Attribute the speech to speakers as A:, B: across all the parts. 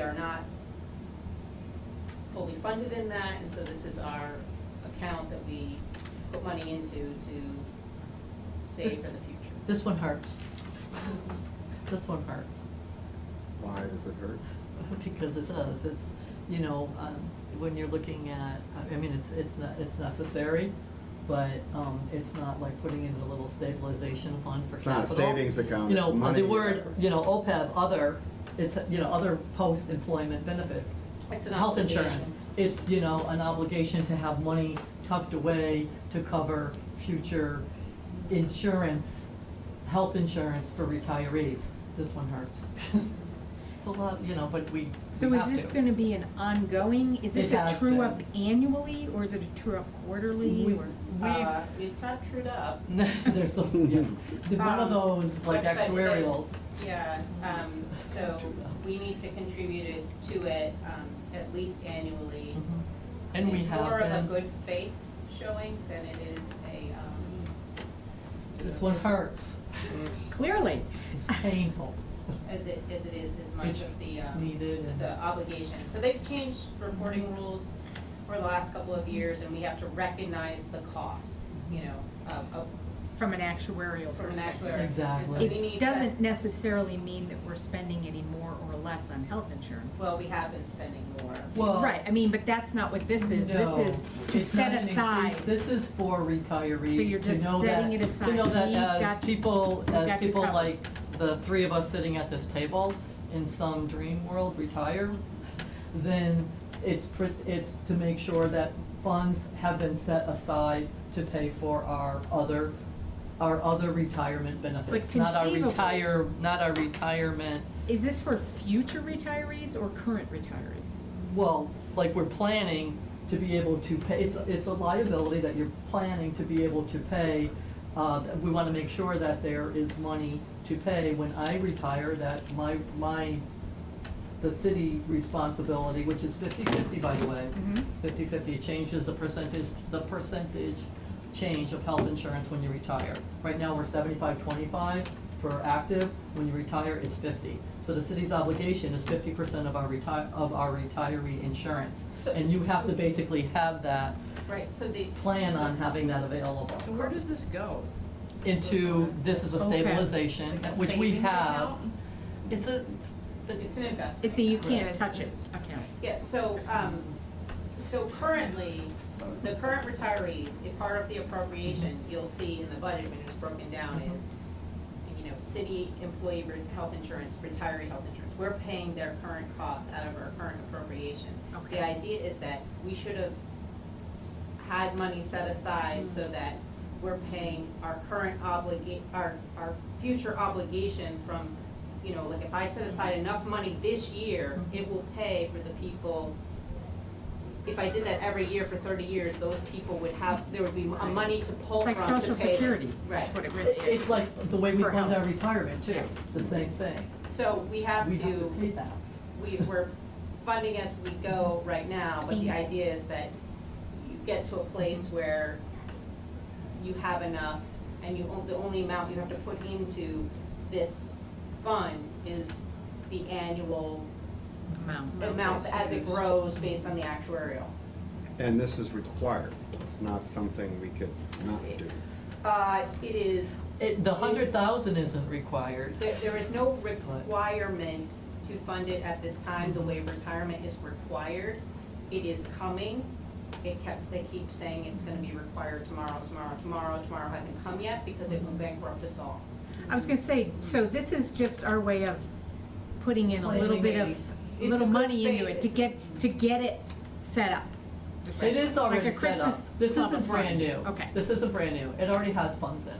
A: are not fully funded in that, and so this is our account that we put money into to save for the future.
B: This one hurts. This one hurts,
C: Why does it hurt?
B: because it does, it's, you know, um, when you're looking at, I mean, it's, it's not, it's necessary, but, um, it's not like putting in a little stabilization fund for
C: It's not a
B: capital.
C: savings account,
B: You
C: it's
B: know,
C: money.
B: The word, you know, OPEB, other, it's, you know, other post-employment benefits.
A: It's an
B: Health insurance,
A: obligation.
B: it's, you know, an obligation to have money tucked away to cover future insurance, health insurance for retirees. This one hurts. It's a lot, you know, but we
D: So
B: we
D: is
B: have
D: this
B: to.
D: gonna be an ongoing, is this
B: It
D: a
B: has
D: true up
B: been.
D: annually, or is it a true up quarterly,
B: We-
D: or?
A: Uh, It's not trued up.
B: There's, a- yeah, The- one of
A: Um,
B: those like
A: but- but- but-
B: actuarials.
A: Yeah, um, so we need to contribute it to it, um, at least annually.
B: Mhm. And we
A: It's more of
B: have
A: a
B: been,
A: good faith showing than it is a, um,
B: this one hurts, Mm-hmm.
D: Clearly.
B: it's painful,
A: as it, as it is as much
B: It's
A: of the, um,
B: needed and.
A: the obligation. So they've changed reporting rules for the last couple of years, and we have to recognize the cost, you know, of, of,
D: From an actuarial
A: from an
D: perspective.
A: actuary. And so
B: Exactly.
A: we need
D: It
A: to-
D: doesn't necessarily mean that we're spending any more or less on health insurance.
A: Well, we have been spending more.
B: Well,
D: Right, I mean, but that's not what this is, this
B: No,
D: is to
B: it's not
D: set
B: an
D: aside.
B: increase. This is for
D: So you're
B: retirees, to
D: just
B: know that,
D: setting it
B: to
D: aside.
B: know that
D: We've
B: as
D: got-
B: people,
D: we've
B: as
D: got you
B: people
D: covered.
B: like the three of us sitting at this table in some dream world retire, then it's, pr- it's to make sure that funds have been set aside to pay for our other, our other retirement benefits. Not our
D: conceivably-
B: retire, not our retirement,
D: Is this for future retirees or current retirees?
B: well, like we're planning to be able to pay, it's, it's a liability that you're planning to be able to pay. Uh, that we wanna make sure that there is money to pay when I retire, that my, my, the city responsibility, which is fifty-fifty, by the way.
E: Mm-hmm.
D: Mhm.
B: Fifty-fifty, it changes the percentage, the percentage change of health insurance when you retire. Right now, we're seventy-five, twenty-five for active, when you retire, it's fifty. So the city's obligation is fifty percent of our retire, of our retiree insurance.
A: So-
B: And you have to basically have that,
A: Right, so the,
B: plan on having that available.
E: So where does this go?
B: Into, this is a
D: Okay.
B: stabilization,
E: Like a
B: which we
E: savings
B: have.
E: account?
B: It's a,
A: it's an investment.
D: It's a you
A: account.
D: can't touch it account.
A: Yeah, so, um, so currently, the current retirees, if part of the appropriation, you'll see in the budget when it's broken down is, you know, city employee re- health insurance, retiree health insurance, we're paying their current costs out of our current appropriation. The
D: Okay.
A: idea is that we should have had money set aside so
D: Mm-hmm.
A: that we're paying our current obliga, our, our future obligation from, you know, like if I set aside
D: Mm-hmm.
A: enough money this year, it will pay for the people. If I did that every year for thirty years, those people would have, there would be a money to pull
D: It's
A: from
D: like
A: to pay.
D: social
A: them.
D: security,
A: Right,
D: That's what it really is.
B: it's like the way we
D: For
B: fund our
D: health.
B: retirement too, the same thing.
A: so we have
B: We have to pay
A: to,
B: that.
A: we, we're funding as we go right now, but
B: Mm-hmm.
A: the
D: Mhm.
A: idea is that you get to a place where you have enough, and you, on- the only amount you have to put into this fund is the annual
D: Amount.
A: amount
E: that's
A: as it
E: used.
A: grows based on the actuarial.
C: And this is required. It's not something we could not do.
A: Uh, it is,
B: It, the hundred thousand isn't required.
A: there, there is no requirement to fund it at this time, the way retirement is required. It is coming. It kept, they keep saying it's gonna be required tomorrow, tomorrow, tomorrow, tomorrow hasn't come yet because it will bankrupt us all.
D: I was gonna say, so this is just our way of putting in a little
B: Placing
D: bit of,
B: a-
A: It's a
D: little
A: good
D: money into
A: faith.
D: it, to get, to get it set up.
B: It is already
D: Like a
B: set up.
D: Christmas
B: This
D: club
B: isn't
D: of
B: brand new.
D: fun. Okay.
B: This isn't brand new. It already has funds in it.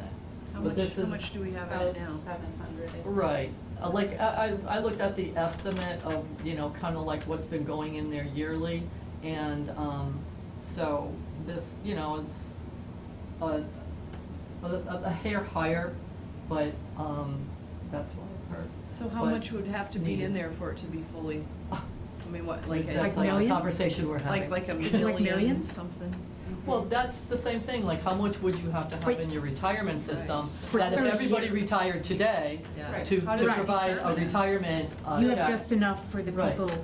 E: How
B: But
E: much,
B: this
E: how
B: is-
E: much do we have in
A: About
E: it now?
A: seven hundred.
B: Right, Uh, like, I, I I looked at the estimate of, you know, kind of like what's been going in there yearly, and, um, so this, you know, is a, a, a hair higher, but, um, that's what I've heard.
E: So how
B: But
E: much would have to
B: it's
E: be in
B: needed.
E: there for it to be fully, I mean, what, like,
B: That's
D: Like
E: a-
B: like a
D: millions?
B: conversation we're having.
E: like, like a
D: Like
E: million
D: millions?
E: something?
B: Well, that's the same thing, like, how much would you have to have
D: Wait.
B: in your retirement system?
D: For
B: That if
D: 30
B: everybody
D: years.
B: retired today,
E: Yeah.
A: Right.
B: to,
E: How
B: to
E: do we
B: provide a
E: determine it?
B: retirement uh, check.
D: You have just enough for the
B: Right.
D: people